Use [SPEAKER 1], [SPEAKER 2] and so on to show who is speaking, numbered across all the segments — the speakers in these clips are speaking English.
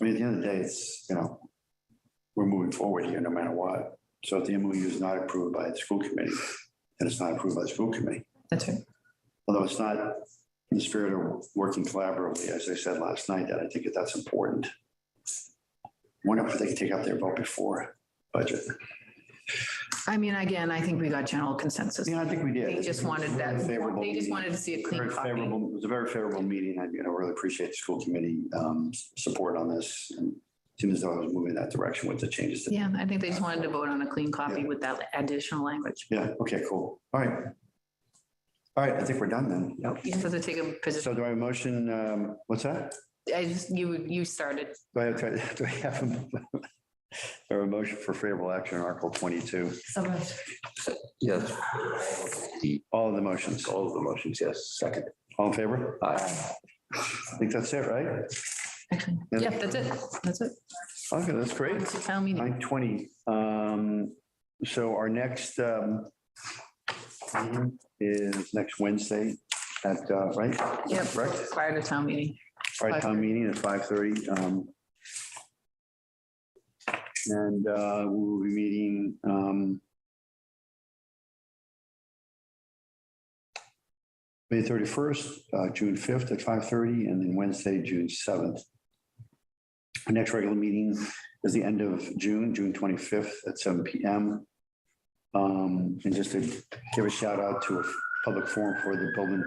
[SPEAKER 1] I mean, at the end of the day, it's, you know, we're moving forward here no matter what. So if the MOU is not approved by the school committee, then it's not approved by the school committee.
[SPEAKER 2] That's right.
[SPEAKER 1] Although it's not in the spirit of working collaboratively, as I said last night, that I think that that's important. Wonder if they can take up their vote before budget.
[SPEAKER 2] I mean, again, I think we got general consensus.
[SPEAKER 1] Yeah, I think we did.
[SPEAKER 2] They just wanted that,
[SPEAKER 1] Favorable
[SPEAKER 2] they just
[SPEAKER 1] meeting.
[SPEAKER 2] wanted to see a clean
[SPEAKER 1] Very
[SPEAKER 2] copy.
[SPEAKER 1] favorable, it was a very favorable meeting. I, you know, really appreciate the school committee um, s- support on this. And it seemed as though I was moving in that direction with the changes. that-
[SPEAKER 2] Yeah, I think they just wanted to vote on a clean copy
[SPEAKER 1] Yeah.
[SPEAKER 2] with that additional language.
[SPEAKER 1] Yeah, okay, cool. All right. All right, I think we're done then. Yep.
[SPEAKER 2] You have to take a position.
[SPEAKER 1] So do I have a motion, um, what's that?
[SPEAKER 2] I just, you, you started.
[SPEAKER 1] Do I have, do I have a- or a motion for favorable action on Article 22?
[SPEAKER 2] So moved.
[SPEAKER 3] Yes.
[SPEAKER 1] All of the motions,
[SPEAKER 3] All of the motions, yes. Second.
[SPEAKER 1] all in favor?
[SPEAKER 3] Aye.
[SPEAKER 1] I think that's it, right?
[SPEAKER 2] Actually,
[SPEAKER 1] Yeah.
[SPEAKER 2] Yep, that's it. That's it.
[SPEAKER 1] Okay, that's great.
[SPEAKER 2] It's a town meeting.
[SPEAKER 1] Nine twenty. Um, so our next um meeting is next Wednesday at, uh, right?
[SPEAKER 2] Yep,
[SPEAKER 1] Correct?
[SPEAKER 2] prior to town meeting.
[SPEAKER 1] All right, town meeting at five thirty. Um And uh, we will be meeting um May thirty-first, uh, June fifth at five thirty, and then Wednesday, June seventh. Our next regular meeting is the end of June, June twenty-fifth at seven PM. Um, and just to give a shout out to a public forum for the building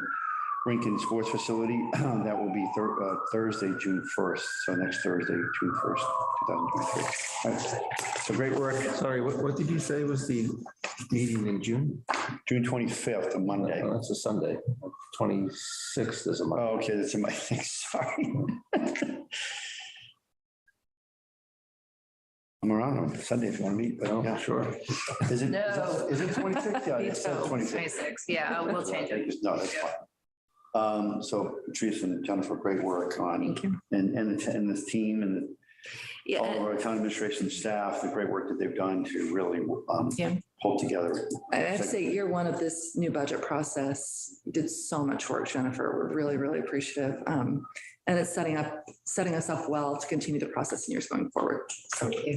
[SPEAKER 1] rink and sports facility. That will be Thur- uh, Thursday, June first. So next Thursday, June first, two thousand twenty-three. So great work.
[SPEAKER 3] Sorry, what, what did you say was the meeting in June?
[SPEAKER 1] June twenty-fifth, a Monday.
[SPEAKER 3] Oh, That's a Sunday. Twenty-sixth is a
[SPEAKER 1] Oh,
[SPEAKER 3] Monday.
[SPEAKER 1] Okay, that's in my thing, sorry. I'm around on Sunday if you want to meet, but
[SPEAKER 3] Oh,
[SPEAKER 1] yeah.
[SPEAKER 3] sure.
[SPEAKER 1] Is it, is
[SPEAKER 2] No.
[SPEAKER 1] that- is it twenty-six? Yeah, it's twenty-six.
[SPEAKER 2] Twenty-six, yeah, we'll change it.
[SPEAKER 1] No, that's fine. Um, so Teresa and Jennifer, great work on,
[SPEAKER 2] Thank you.
[SPEAKER 1] and, and, the- and this team and the
[SPEAKER 2] Yeah,
[SPEAKER 1] all of
[SPEAKER 2] and
[SPEAKER 1] our town administration staff, the great work that they've done to really um,
[SPEAKER 2] Yeah.
[SPEAKER 1] pull together.
[SPEAKER 4] I have to say, year one of this new budget process did so much work, Jennifer. We're really, really appreciative. Um, and it's setting up, setting us up well to continue the process in years going forward.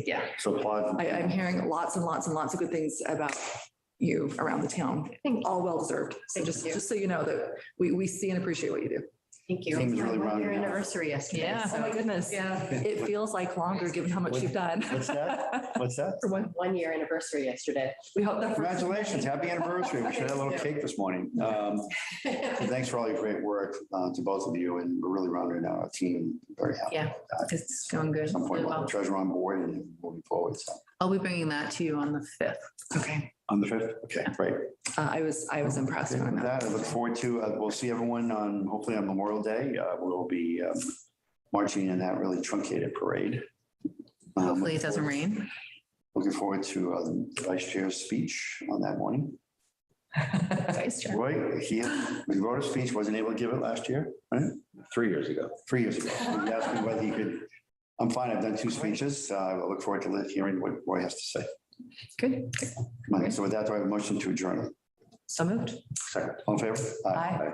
[SPEAKER 2] yeah,
[SPEAKER 1] So applaud.
[SPEAKER 4] I, I'm hearing lots and lots and lots of good things about you around the town,
[SPEAKER 2] Thank
[SPEAKER 4] all well deserved. So
[SPEAKER 2] Thank
[SPEAKER 4] just,
[SPEAKER 2] you.
[SPEAKER 4] just so you know that we, we see and appreciate what you do.
[SPEAKER 2] thank
[SPEAKER 1] you. Team is really rounding
[SPEAKER 2] Your
[SPEAKER 1] up.
[SPEAKER 2] anniversary yesterday.
[SPEAKER 4] Oh my
[SPEAKER 2] so-
[SPEAKER 4] goodness.
[SPEAKER 2] Yeah.
[SPEAKER 4] It feels like longer given how much you've done.
[SPEAKER 1] What's that? What's that?
[SPEAKER 4] For one-
[SPEAKER 5] one year anniversary yesterday.
[SPEAKER 4] We hope that.
[SPEAKER 1] Congratulations, happy anniversary. We should have had a little cake this morning. Um, and Thanks for all your great work uh, to both of you and we're really rounding out our team. Very happy.
[SPEAKER 2] Yeah. It's going good.
[SPEAKER 1] At some point,
[SPEAKER 2] really
[SPEAKER 1] we'll have
[SPEAKER 2] well.
[SPEAKER 1] a treasurer on board and moving forward. So
[SPEAKER 2] I'll be bringing that to you on the fifth.
[SPEAKER 4] Okay.
[SPEAKER 1] on the fifth, okay, great.
[SPEAKER 4] Uh, I was, I was impressed
[SPEAKER 1] Okay,
[SPEAKER 4] when I
[SPEAKER 1] With
[SPEAKER 4] met.
[SPEAKER 1] that, I look forward to, uh, we'll see everyone on, hopefully on Memorial Day. Uh, We'll be um, marching in that really truncated parade. Um,
[SPEAKER 2] Hopefully it doesn't rain.
[SPEAKER 1] Looking forward to uh, the vice chair's speech on that morning.
[SPEAKER 2] Vice Chair.
[SPEAKER 1] Roy, he, we wrote a speech, wasn't able to give it last year, right?
[SPEAKER 3] Three years ago.
[SPEAKER 1] Three years ago. He asked me whether he could, I'm fine, I've done two speeches. Uh, I look forward to li- hearing what Roy has to say.
[SPEAKER 2] Good.
[SPEAKER 1] Come on, So with that, do I have a motion to adjourn?
[SPEAKER 2] So moved.
[SPEAKER 1] Second. All in favor?
[SPEAKER 4] Aye.